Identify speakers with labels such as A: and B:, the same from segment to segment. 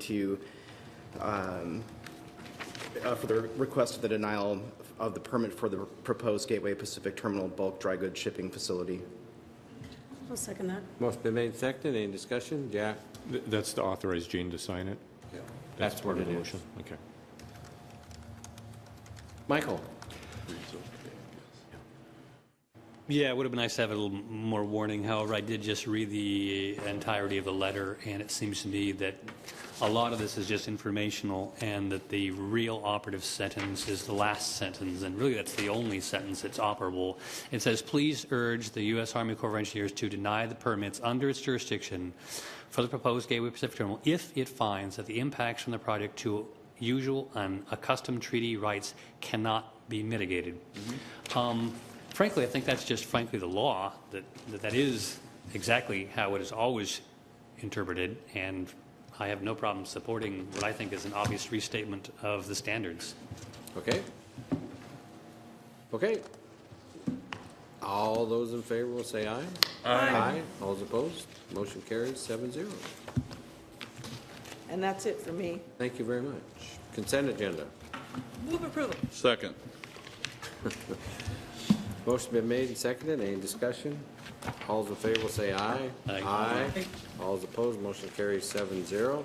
A: to, um, uh, for the request of the denial of the permit for the proposed Gateway Pacific Terminal Bulk Dry Goods Shipping Facility.
B: I'll second that.
C: Motion been made, and seconded, any discussion? Jack?
D: Th- That's to authorize Gene to sign it?
C: That's what
D: part of
C: it
D: the
C: is.
D: motion. Okay.
C: Michael?
E: Yeah, it would have been nice to have a little more warning. However, I did just read the entirety of the letter, and it seems to me that a lot of this is just informational, and that the real operative sentence is the last sentence, and really that's the only sentence that's operable. It says, "Please urge the U.S. Army Corps of Engineers to deny the permits under its jurisdiction for the proposed Gateway Pacific Terminal if it finds that the impacts from the project to usual and accustomed treaty rights cannot be mitigated." Um, frankly, I think that's just frankly the law, that, that that is exactly how it is always interpreted, and I have no problem supporting what I think is an obvious restatement of the standards.
C: Okay. Okay. All those in favor will say aye. Aye. All those opposed, motion carries seven zero.
F: And that's it for me.
C: Thank you very much. Consent agenda.
F: Move approval.
G: Second.
C: Motion been made and seconded, any discussion? All those in favor will say aye.
E: Aye.
C: All those opposed, motion carries seven zero.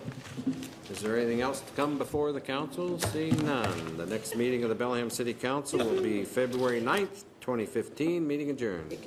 C: Is there anything else to come before the council? Seeing none. The next meeting of the Bellingham City Council will be February 9th, 2015, meeting adjourned.